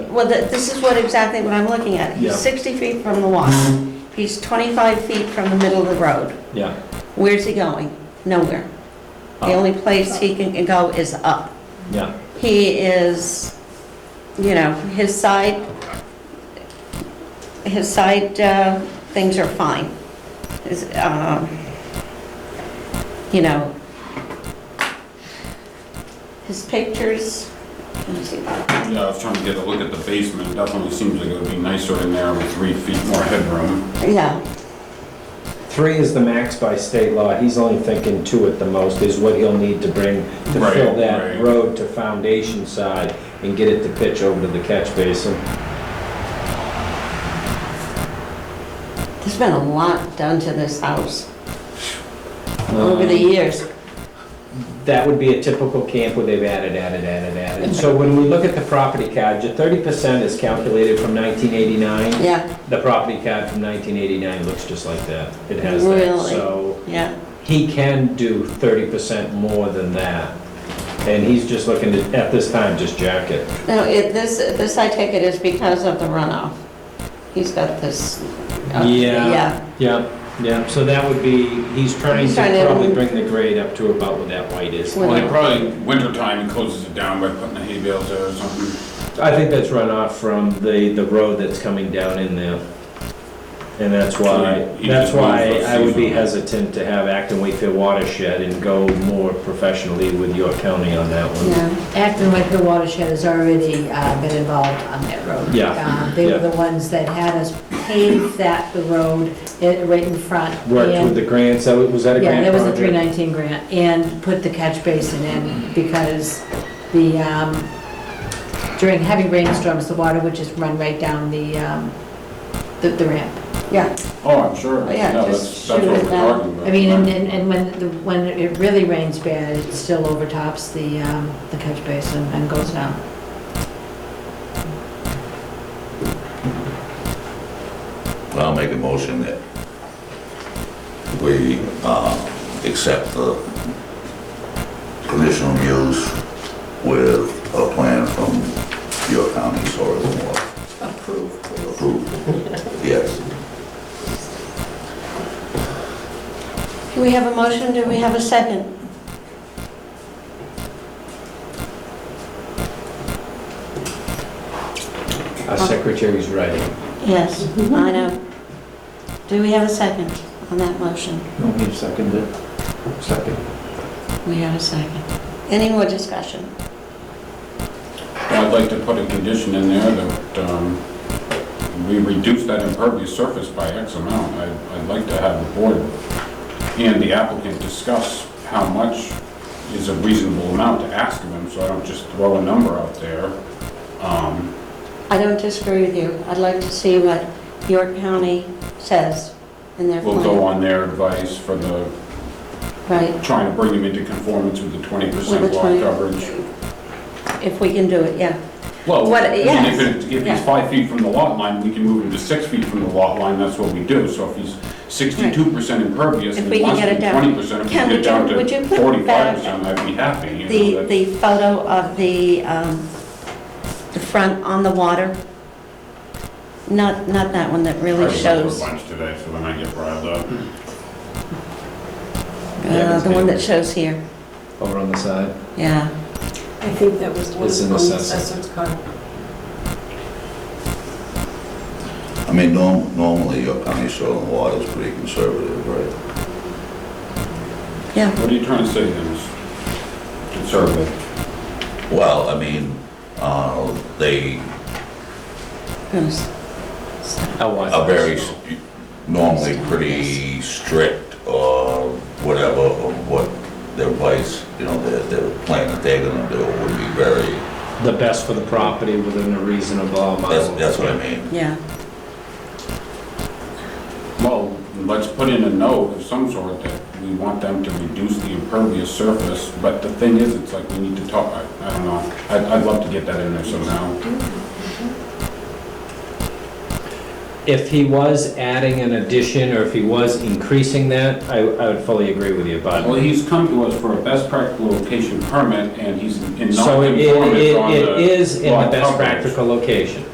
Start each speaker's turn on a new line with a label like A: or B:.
A: well, th- this is what exactly what I'm looking at.
B: Yeah.
A: He's 60 feet from the walk. He's 25 feet from the middle of the road.
B: Yeah.
A: Where's he going? Nowhere. The
B: Up.
A: only place he can go is up.
B: Yeah,
A: He is, you know, his side, his side uh, things are fine. Is, um, You know, his pictures, let me see.
C: Yeah, I was trying to get a look at the basement, definitely seems like it would be nicer in there with three feet more headroom.
A: Yeah,
D: Three is the max by state law. He's only thinking two at the most is what he'll need to bring to
C: Right,
D: fill that
C: right.
D: road to foundation side and get it to pitch over to the catch basin.
A: there's been a lot done to this house over the years.
D: Um, That would be a typical camp where they've added, added, added, added. So when we look at the property card, your thirty percent is calculated from nineteen eighty-nine.
A: Yeah,
D: The property card from nineteen eighty-nine looks just like that. It has that,
A: Really?
D: so.
A: yeah.
D: he can do thirty percent more than that. And he's just looking to, at this time, just jack it.
A: No, it, this, this I take it is because of the runoff. He's got this. uh,
D: Yeah.
A: Yeah,
D: Yep, yep, so that would be, he's trying
A: He's trying
D: to
A: to-
D: probably bring the grade up to about what that white is.
A: Well-
C: Well, they probably, wintertime, it closes it down by putting a hay bale there or something.
D: I think that's runoff from the, the road that's coming down in there. And that's why,
C: He- he
D: that's
C: just wants
D: why
C: those
D: I would be
C: seasonal.
D: hesitant to have Acton Wakefield Watershed and go more professionally with York County on that one.
A: yeah.
E: Acton Wakefield Watershed has already uh, been involved on that road.
D: Yeah,
E: Uh, They were
D: yeah.
E: the ones that had us pave that, the road, it- right in front.
D: Worked with
E: and-
D: the grants, so was that a
E: Yeah,
D: grant
E: that was a
D: project?
E: 319 grant, and put the catch basin in because the, um, during heavy rainstorms, the water would just run right down the, um, the the ramp.
A: Yeah,
C: Oh, I'm sure.
A: Oh, yeah,
C: No,
A: just
C: that's- that's
A: shoot
C: what
A: it
C: we're
A: down.
C: talking about.
E: I mean, and, and and when, the- when it really rains bad, it still overtops the, um, the catch basin and goes down.
F: I'll make a motion that we uh, accept the conditional use with a plan from your county soil and water. Approved. Approved, yes.
A: do we have a motion, do we have a second?
D: Our secretary's writing.
A: Yes, I know. Do we have a second on that motion?
D: No, he seconded Second.
A: We have a second. Any more discussion?
C: Well, I'd like to put a condition in there that, um, we reduce that impervious surface by X amount. I'd, I'd like to have the board and the applicant discuss how much is a reasonable amount to ask of them, so I don't just throw a number out there. Um,
A: I don't disagree with you. I'd like to see what York County says in their
C: We'll go
A: plan.
C: on their advice for the,
A: Right,
C: trying to bring them into conformance with the twenty
A: With
C: percent
A: the
C: lot
A: 20.
C: coverage.
A: if we can do it, yeah.
C: Well,
A: What-
C: I mean,
A: yes.
C: if it- if
A: Yeah.
C: he's five feet from the lot line, we can move him to six feet from the lot line, that's what we do. So if he's sixty-two percent impervious
A: If
C: and
A: we
C: he
A: can
C: wants
A: get
C: to
A: it
C: be
A: down.
C: twenty percent, if we
A: Ken,
C: get
A: would you-
C: down
A: would you
C: to
A: put
C: forty-five
A: back
C: percent, I'd be happy, you know,
A: The,
C: that's
A: the photo of the, um, the front on the water? Not, not that one that really shows,
C: lunch today, so when I get riled up.
A: uh, the one that shows here,
D: Over on the side.
A: yeah.
G: I think that was one
D: It's
G: of
D: an
G: the
D: assessor.
G: assessor's card.
F: I mean, norm- normally your county soil and water is pretty conservative, right?
A: Yeah,
C: What are you trying to say, Dennis? Conservative.
F: Well, I mean, uh, they
A: goes.
F: are very, s- normally pretty strict or whatever of what their vice, you know, their, their plan that they're gonna do would be very,
D: The best for the property within a reasonable amount.
F: that's, that's what I mean.
A: yeah,
C: Well, let's put in a note of some sort that we want them to reduce the impervious surface, but the thing is, it's like we need to talk, I, I don't know. I'd, I'd love to get that in there somehow.
D: if he was adding an addition or if he was increasing that, I, I would fully agree with you,
C: Well,
D: but.
C: he's come to us for a best practical location permit, and he's in
D: So it, it,
C: non-conformance on the...
D: it is in the
C: lot
D: best
C: coverage.
D: practical location.